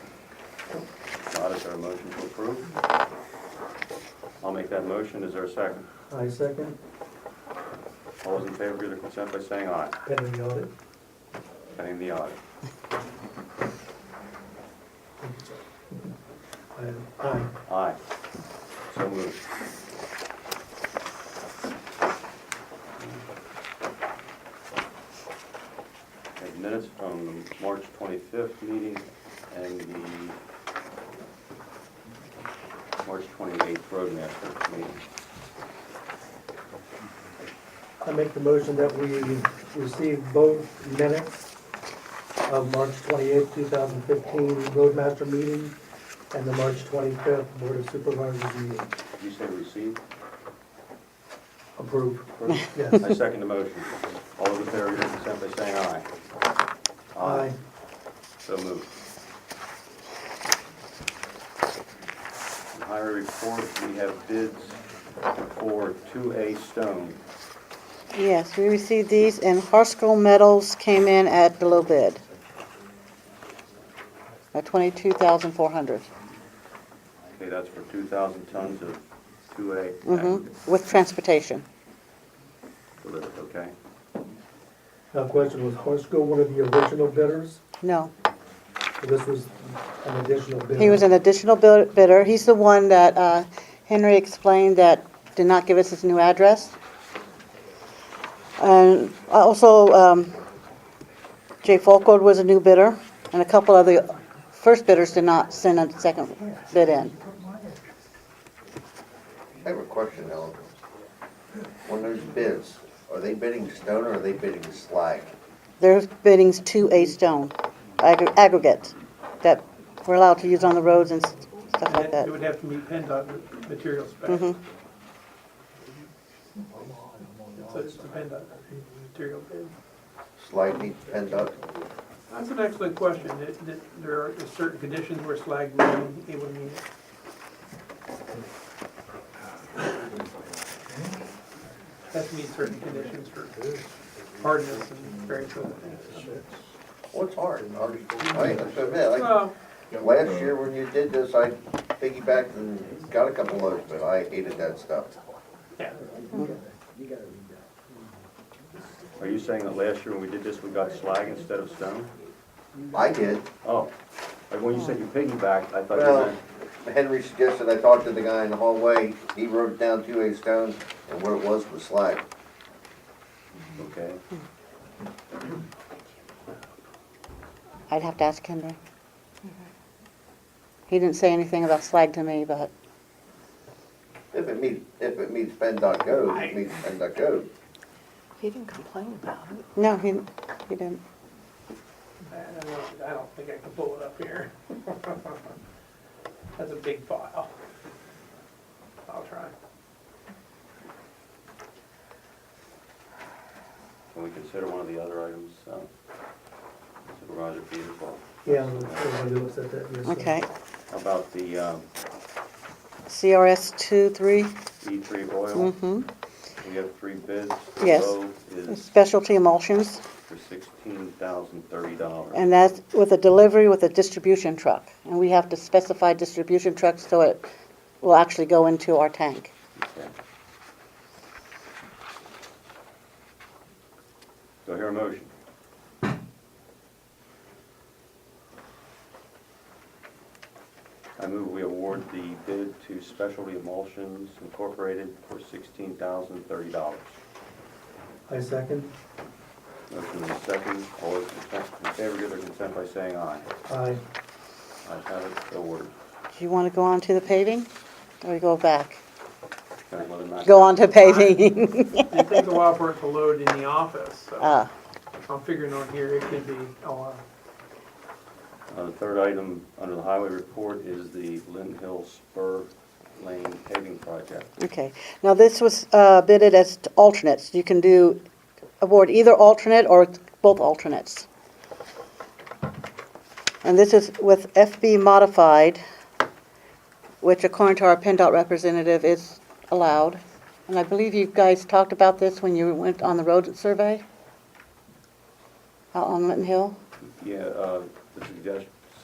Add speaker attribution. Speaker 1: Not is there a motion to approve? I'll make that motion, is there a second?
Speaker 2: I second,
Speaker 1: All those in favor give their consent by saying aye,
Speaker 2: pending the audit.
Speaker 1: pending the audit.
Speaker 2: I- Aye.
Speaker 1: Aye. So moved. Okay, Minutes from the March 25th meeting and the March 28th Roadmaster meeting.
Speaker 2: I make the motion that we receive both minutes of March twenty-eighth, two thousand fifteen Roadmaster meeting and the March twenty-fifth Board of Supervisors meeting.
Speaker 1: Did you say receive?
Speaker 2: Approve,
Speaker 1: Approved?
Speaker 2: yes.
Speaker 1: I second the motion. All those in favor, give their consent by saying aye.
Speaker 2: Aye.
Speaker 1: So moved. And Highway report, we have bids for 2A stone.
Speaker 3: Yes, we received these, and Harskell Metals came in at below bid. At twenty-two thousand four hundred,
Speaker 1: Okay, that's for 2,000 tons of 2A
Speaker 3: mm-hmm,
Speaker 1: aggregate
Speaker 3: with transportation.
Speaker 1: delivered, okay?
Speaker 2: Now, question, was Horsko one of the original bidders?
Speaker 3: No,
Speaker 2: So This was an additional bidder?
Speaker 3: he was an additional bid- bidder. He's the one that uh, Henry explained that did not give us his new address. And also, um, Jay Folkwood was a new bidder, and a couple of the first bidders did not send a second bid in.
Speaker 4: I have a question, Ellen. When there's bids, are they bidding stone or are they bidding slag?
Speaker 3: Their bidding's two A stone, ag- aggregate, that we're allowed to use on the roads and s- stuff like that. Mm-hmm.
Speaker 5: It would have to meet PennDOT material specs. It's a it's a PennDOT material bid.
Speaker 4: Slag needs PennDOT?
Speaker 5: That's an excellent question. That- that There are certain conditions where slag would be, it would meet. Has to meet certain conditions for hardness and various other things.
Speaker 4: What's hard? Hard- I have to admit, like,
Speaker 5: Well,
Speaker 4: last year when you did this, I piggybacked and got a couple loads, but I hated that stuff.
Speaker 5: yeah.
Speaker 1: Are you saying that last year when we did this, we got slag instead of stone?
Speaker 4: I did.
Speaker 1: Oh, like when you said you piggybacked, I thought you
Speaker 4: Well,
Speaker 1: meant,
Speaker 4: Henry suggested I talked to the guy in the hallway. He wrote down two A stone and what it was was slag.
Speaker 1: okay.
Speaker 3: I'd have to ask Henry. He didn't say anything about slag to me, but,
Speaker 4: If it meets, if it meets PennDOT code, it meets PennDOT code.
Speaker 6: He didn't complain about it.
Speaker 3: no, he, he didn't.
Speaker 5: I don't know. I don't think I can pull it up here. That's a big file. I'll try.
Speaker 1: Can we consider one of the other items, uh, Supervisor Peters, well,
Speaker 2: Yeah, everybody looks at that, yes. sir.
Speaker 3: Okay,
Speaker 1: how about the um,
Speaker 3: CRS two, three,
Speaker 1: E3 E oil?
Speaker 3: mm-hmm,
Speaker 1: We have three bids.
Speaker 3: Yes.
Speaker 1: The low is
Speaker 3: specialty emulsions,
Speaker 1: for $16,030.
Speaker 3: and that's with a delivery with a distribution truck. And we have to specify distribution trucks so it will actually go into our tank.
Speaker 1: Okay. Do I hear a motion? I move we award the bid to Specialty Emulsions Incorporated for $16,030.
Speaker 2: I second,
Speaker 1: Motion is second. All those in favor give their consent by saying aye.
Speaker 2: aye.
Speaker 1: Ayes have it, so ordered.
Speaker 3: Do you want to go on to the paving, or we go back?
Speaker 1: Can I let him act?
Speaker 3: Go on to paving.
Speaker 5: It takes a while for it to load in the office, so
Speaker 3: Ah,
Speaker 5: I'm figuring on here it could be a while.
Speaker 1: Uh, The third item under the highway report is the Lynn Hill Spur Lane paving project.
Speaker 3: okay. Now, this was uh, bidded as t- alternates. You can do, award either alternate or both alternates. And this is with FB modified, which according to our PennDOT representative is allowed. And I believe you guys talked about this when you went on the road survey? Out on Linton Hill?
Speaker 1: Yeah, uh, the suggestion,